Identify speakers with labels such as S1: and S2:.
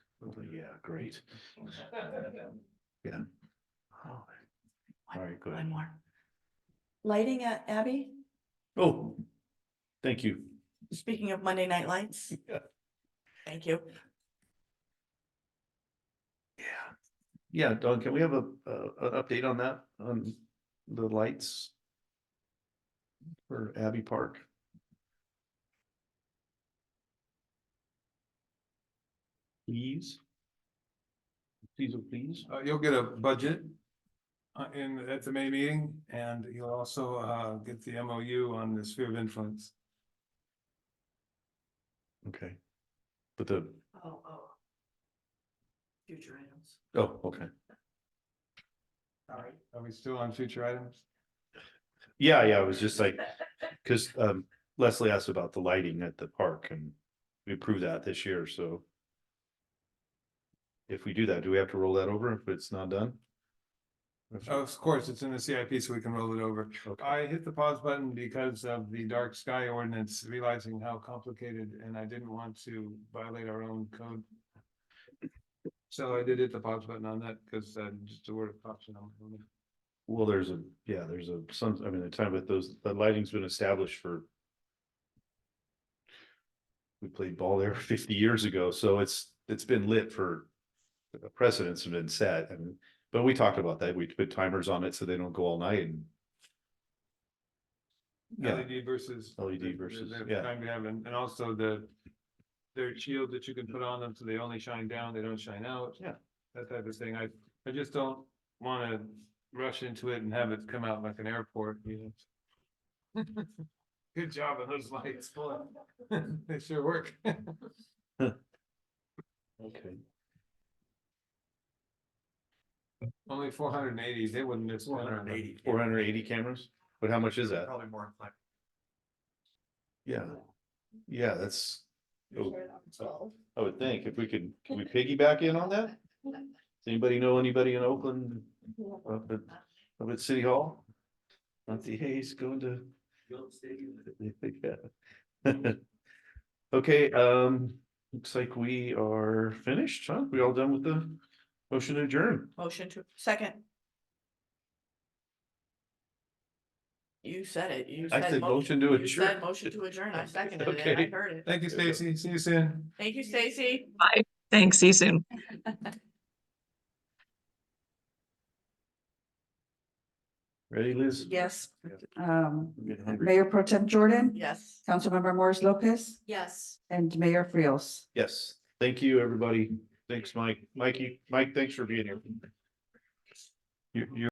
S1: Yeah, great. Yeah. All right, good.
S2: One more. Lighting at Abbey,
S1: Oh, thank you.
S2: speaking of Monday Night Lights.
S1: Yeah.
S2: Thank you.
S1: Yeah. Yeah, Doug, can we have a, uh, an update on that, on the lights? For Abbey Park? Please? Please, oh, please?
S3: Uh, you'll get a budget. Uh, in, at the May meeting, and you'll also, uh, get the MOU on the sphere of influence.
S1: Okay. But the,
S2: Oh, oh. Future items.
S1: oh, okay.
S3: All right. Are we still on future items?
S1: Yeah, yeah, I was just like, cause um Leslie asked about the lighting at the park and we approved that this year, so. If we do that, do we have to roll that over if it's not done? If-
S3: Of course, it's in the CIP, so we can roll it over.
S1: okay,
S3: Oh, I hit the pause button because of the dark sky ordinance, realizing how complicated, and I didn't want to violate our own code. So I did hit the pause button on that, because, uh, just a word of caution. on it.
S1: Well, there's a, yeah, there's a, some, I mean, the time with those, the lighting's been established for. We played ball there fifty years ago, so it's, it's been lit for. the Precedents have been set and, but we talked about that. We put timers on it so they don't go all night and. Yeah.
S3: LED E versus.
S1: LED
S3: the- the-
S1: versus-
S3: the
S1: yeah.
S3: Time to have, and, and also the, their shield that you can put on them, so they only shine down, they don't shine out.
S1: Yeah.
S3: That type of thing, I, I just don't wanna rush into it and have it come out like an airport, you know. Good job on those lights, boy, they sure work.
S1: Okay.
S3: Only four hundred and eighty, they wouldn't miss one.
S1: Four hundred and eighty cameras? But how much is that?
S3: Probably more like.
S1: Yeah, yeah, that's, Oh.
S2: Twelve.
S1: I would think, if we could, can we piggyback in on that? Does anybody know anybody in Oakland, up at, up at City Hall? Nancy Hayes going to? Yeah. Okay, um, looks like we are finished, huh? We all done with the motion to adjourn?
S2: Motion to, second. You said it, you
S1: I
S2: said.
S1: said
S2: mo-
S1: motion to
S2: You said
S1: adjourn.
S2: motion to adjourn, I seconded it, and I
S1: Okay.
S2: heard it.
S3: Thank you, Stacy, see you soon.
S2: Thank you, Stacy.
S4: Thanks, see you soon.
S1: Ready, Liz?
S2: Yes.
S5: Um,
S1: I'm getting hungry.
S5: Mayor Pro Tem Jordan,
S2: Yes.
S5: Councilmember Morris Lopez,
S2: Yes.
S5: and Mayor Frios.
S1: Yes, thank you, everybody. Thanks, Mike. Mikey, Mike, thanks for being here. You, you.